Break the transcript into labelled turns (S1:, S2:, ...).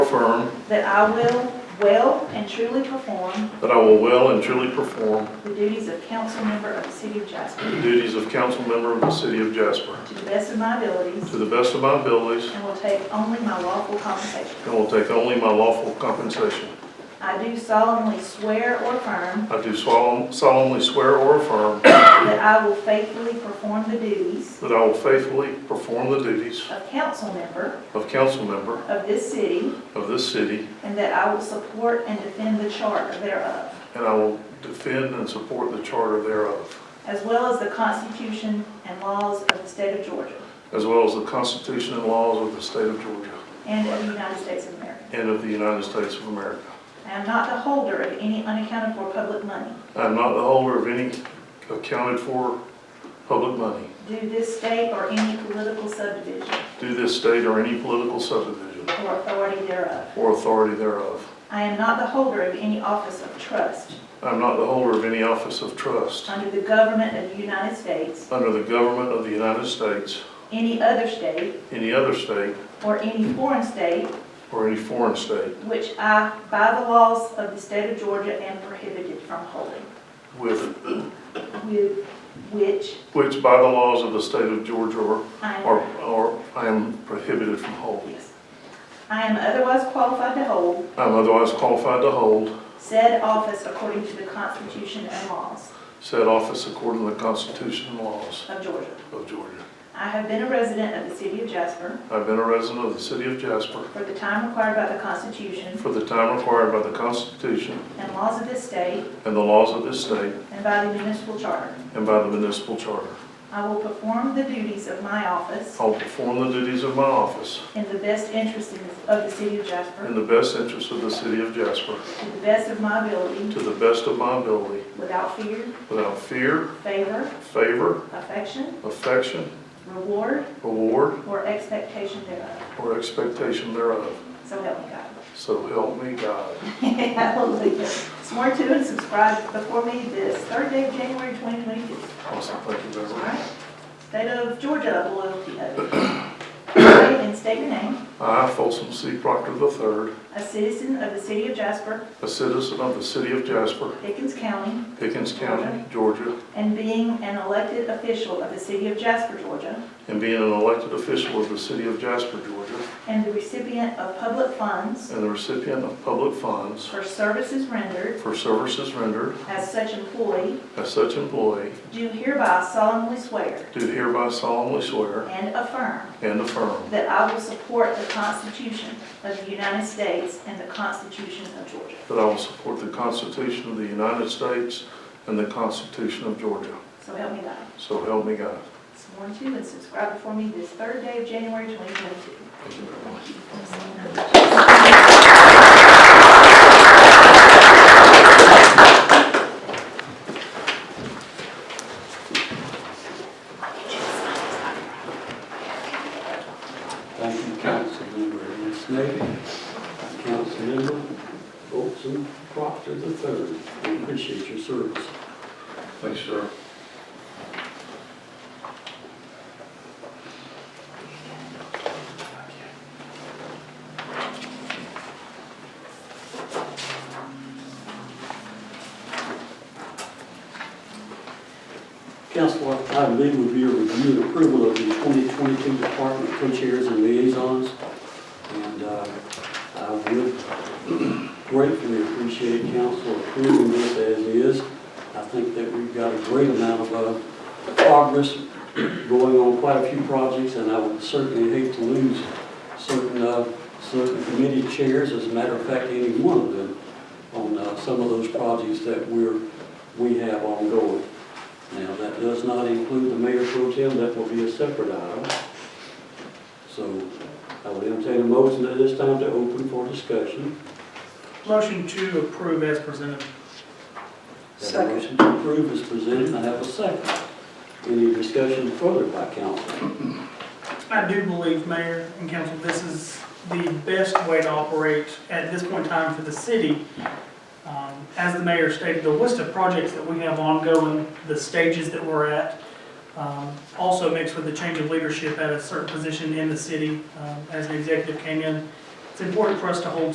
S1: affirm
S2: that I will well and truly perform
S1: that I will well and truly perform
S2: the duties of council member of the city of Jasper
S1: the duties of council member of the city of Jasper
S2: to the best of my abilities
S1: to the best of my abilities
S2: and will take only my lawful compensation.
S1: and will take only my lawful compensation.
S2: I do solemnly swear or affirm
S1: I do solemn- solemnly swear or affirm
S2: that I will faithfully perform the duties
S1: that I will faithfully perform the duties
S2: of council member
S1: of council member
S2: of this city
S1: of this city
S2: and that I will support and defend the charter thereof,
S1: and I will defend and support the charter thereof,
S2: as well as the Constitution and laws of the state of Georgia
S1: as well as the Constitution and laws of the state of Georgia
S2: and of the United States of America.
S1: and of the United States of America.
S2: I am not the holder of any unaccounted for public money.
S1: I am not the holder of any accounted for public money
S2: do this state or any political subdivision
S1: due this state or any political subdivision
S2: or authority thereof.
S1: or authority thereof.
S2: I am not the holder of any office of trust
S1: I am not the holder of any office of trust
S2: under the government of the United States,
S1: under the government of the United States,
S2: any other state,
S1: any other state,
S2: or any foreign state,
S1: or any foreign state,
S2: which I, by the laws of the state of Georgia, am prohibited from holding,
S1: with,
S2: with which
S1: which by the laws of the state of Georgia or-
S2: I
S1: or,
S2: am,
S1: or I am prohibited from holding.
S2: yes. I am otherwise qualified to hold
S1: I am otherwise qualified to hold
S2: said office according to the Constitution and laws
S1: said office according to the Constitution and laws
S2: of Georgia.
S1: of Georgia.
S2: I have been a resident of the city of Jasper
S1: I've been a resident of the city of Jasper
S2: for the time required by the Constitution
S1: for the time required by the Constitution
S2: and laws of this state
S1: and the laws of this state
S2: and by the municipal charter.
S1: and by the municipal charter.
S2: I will perform the duties of my office
S1: I will perform the duties of my office
S2: in the best interest of the city of Jasper,
S1: in the best interest of the city of Jasper,
S2: to the best of my ability,
S1: to the best of my ability,
S2: without fear,
S1: without fear,
S2: favor,
S1: favor,
S2: affection,
S1: affection,
S2: reward,
S1: reward,
S2: or expectation thereof.
S1: or expectation thereof.
S2: So help me God.
S1: So help me God.
S2: Hallelujah. Sworn to and subscribed before me this third day of January 2022.
S1: Awesome, thank you,
S2: All
S1: Beverly.
S2: right. State of Georgia loyalty oath. And state your name.
S1: I, Folsom C. Proctor III,
S2: A citizen of the city of Jasper,
S1: a citizen of the city of Jasper,
S2: Pickens County,
S1: Pickens County, Georgia,
S2: And being an elected official of the City of Jasper, Georgia,
S1: and being an elected official of the city of Jasper, Georgia,
S2: and the recipient of public funds
S1: and the recipient of public funds
S2: for services rendered
S1: for services rendered
S2: as such employee,
S1: as such employee,
S2: do hereby solemnly swear
S1: do hereby solemnly swear
S2: and affirm
S1: and affirm
S2: that I will support the Constitution of the United States and the Constitution of Georgia.
S1: that I will support the Constitution of the United States and the Constitution of Georgia.
S2: So help me God.
S1: So help me God.
S2: Sworn to and subscribed before me this third day of January 2022.
S1: Thank you very much.
S3: Thank you, Councilmember Ms. Navy, Councilmember Olson Proctor III. We appreciate your service.
S1: Thanks, sir.
S3: Council, item B would be a review and approval of the 2022 Department Co-Chairs and Liaisons. And uh, I would gratefully appreciate council approving this as is. I think that we've got a great amount of uh, progress going on, quite a few projects, and I would certainly hate to lose certain, uh, certain committee chairs, as a matter of fact, any one of them, on uh, some of those projects that we're, we have ongoing. Now, that does not include the mayor pro tem, that will be a separate item. So I would entertain a motion at this time to open for discussion.
S4: Motion to approve as presented.
S3: Have a Motion to approve is presented, I have a second. Any discussion further by council?
S4: I do believe, Mayor and Council, this is the best way to operate at this point in time for the city. Um, As the mayor stated, the list of projects that we have ongoing, the stages that we're at, um, also mixed with the change of leadership at a certain position in the city, um, as an executive came in, it's it's important for us to hold